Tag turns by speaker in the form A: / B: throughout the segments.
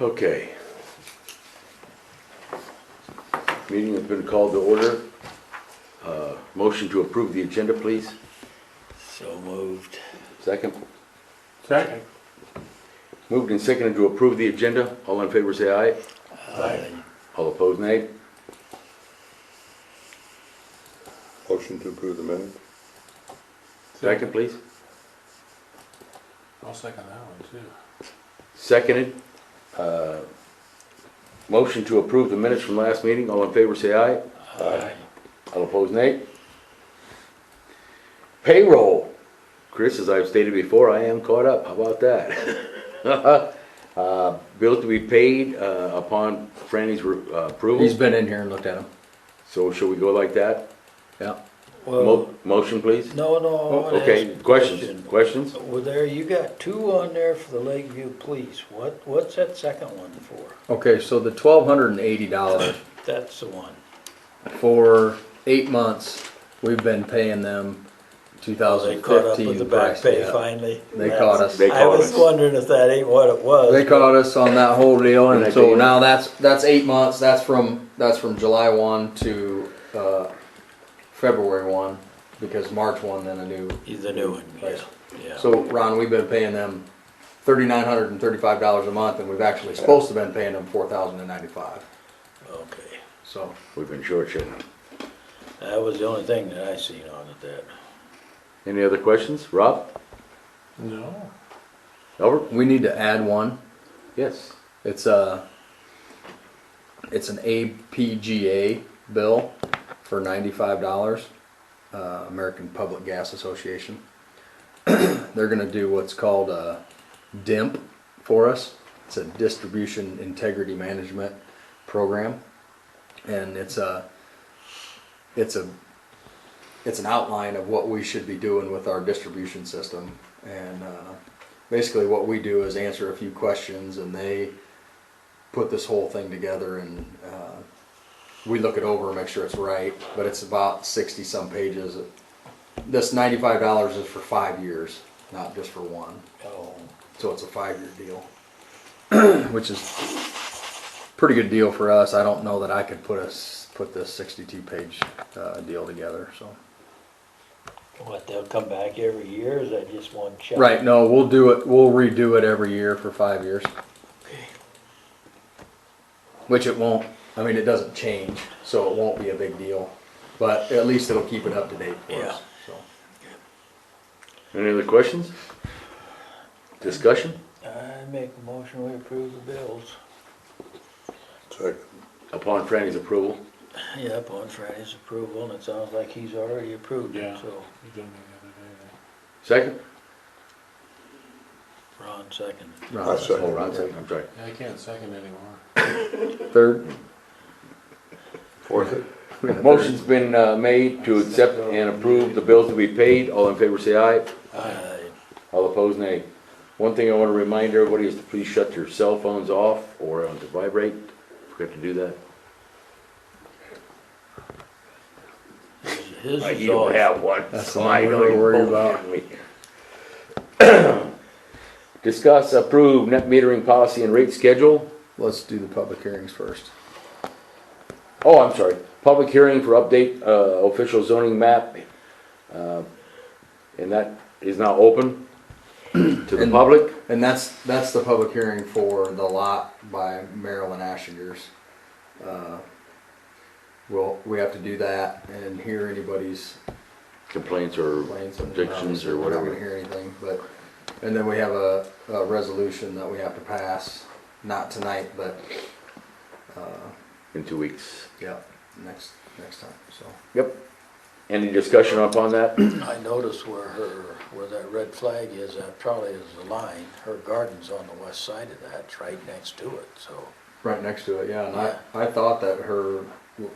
A: Okay. Meeting has been called to order. Uh, Motion to approve the agenda, please.
B: So moved.
A: Second.
C: Second.
A: Moved and seconded to approve the agenda. All in favor, say aye. All opposed, nay.
D: Motion to approve the minutes?
A: Second, please.
C: I'll second that one too.
A: Seconded. Uh, Motion to approve the minutes from last meeting. All in favor, say aye.
B: Aye.
A: All opposed, nay. Payroll. Chris, as I've stated before, I am caught up. How about that? Uh, Bills to be paid uh, upon Franny's re- uh,
E: He's
A: approval.
E: been in here and looked at them.
A: So shall we go like that?
E: Yeah.
B: Well,
A: Mo- Motion, please?
B: Uh, no, no. I
E: Oh,
B: wanna
A: Okay,
B: ask a
A: questions,
B: Oh, question.
A: questions?
B: Well, there, you got two on there for the Lakeview Police. What, what's that second one for?
E: Okay, so the twelve hundred and eighty dollars
B: That's the one.
E: for eight months, we've been paying them two
B: They
E: thousand
B: caught up with the back
E: fifteen price.
B: pay
E: yeah.
B: finally.
E: They
B: That's-
E: caught us.
A: They
B: I
A: caught
B: was
A: us.
B: wondering if that ain't what it was.
E: They
B: but
E: caught us on that whole deal,
A: And
E: and
A: they
E: so
A: did.
E: now that's, that's eight months, that's from, that's from July one to, uh, February one, because March one, then a new.
B: He's the new one, yeah,
E: Price.
B: yeah.
E: So, Ron, we've been paying them thirty-nine hundred and thirty-five dollars a month, and we've actually supposed to been paying them four thousand and ninety-five,
B: Okay.
E: so.
A: We've been short, shouldn't we?
B: That was the only thing that I seen on it that.
A: Any other questions? Rob?
C: No.
A: Albert?
E: We need to add one.
A: Yes.
E: It's a, it's an APGA bill for ninety-five dollars, uh, American Public Gas Association. They're gonna do what's called a DIMP for us. It's a Distribution Integrity Management Program. And it's a, it's a, it's an outline of what we should be doing with our distribution system. And, uh, basically what we do is answer a few questions and they put this whole thing together and uh, we look it over and make sure it's right but it's about 60 some pages this $95 is for five years not just for one
B: Oh.
E: so it's a five-year deal which is pretty good deal for us i don't know that i could put us put this 62 page uh, deal together so
B: What, they'll come back every year, or is that just one check?
E: right no we'll do it we'll redo it every year for five years
B: Okay.
E: Which it won't, I mean, it doesn't change, so it won't be a big deal, but at least it'll keep it up to date for
B: Yeah.
E: us, so.
A: Any other questions? Discussion?
B: I make a motion, we approve the bills.
D: Second.
A: Upon Franny's approval.
B: Yep, on Friday's approval, and it sounds like he's already approved it,
C: Yeah.
B: so
C: You done that
A: Second?
B: Ron seconded.
E: Ron,
D: That's Second.
A: Oh, Ron, second, I'm sorry.
C: the other day. I can't second anymore.
E: Third,
D: Fourth it?
A: Motion's been uh, made to accept and approve the bills to be paid. All in favor, say aye.
B: Aye.
A: All opposed, nay. One thing I want to remind everybody is to please shut your cell phones off or on to vibrate. Forgot to do that.
B: His
A: Uh,
B: is
A: You don't
B: off.
A: have one.
E: That's
A: so
E: the
A: I
E: one
A: know
E: we're
A: you're
E: worried
A: bullshitting me. Discuss, approve net metering policy and rate schedule.
E: let's do the public hearings first.
A: Oh, I'm sorry, public hearing for update, uh, official zoning map. uh, And that is now open to the
E: And-
A: public.
E: And that's, that's the public hearing for the lot by Marilyn Ashinger's. Uh, Well, we have to do that and hear anybody's
A: Complaints or
E: complaints. and
A: objections
E: obviously
A: or
E: We're not gonna
A: whatever.
E: hear anything, but, and then we have a, a resolution that we have to pass, not tonight, but, uh,
A: In two weeks.
E: yeah, next, next time, so.
A: Yep. Any discussion upon that?
B: I noticed where her, where that red flag is, that probably is the line. Her garden's on the west side of that, it's right next to it, so.
E: Right next to it, yeah, and I, I thought that her,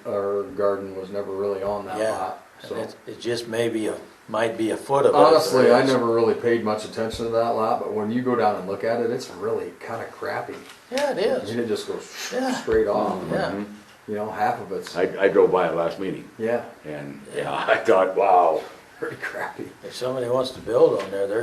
E: her garden was never really on that
B: Yeah,
E: lot,
B: and
E: so.
B: it's, it just maybe, a might be a foot of it.
E: Honestly, I never really paid much attention to that lot, but when you go down and look at it, it's really kinda crappy.
B: Yeah, it
E: I mean,
B: is,
E: it just goes
B: Yeah.
E: straight off,
B: yeah.
E: you know, half of it's,
A: I, I drove by it last meeting
E: yeah,
A: and, yeah, I thought, wow.
E: pretty crappy.
B: If somebody wants to build on there, they're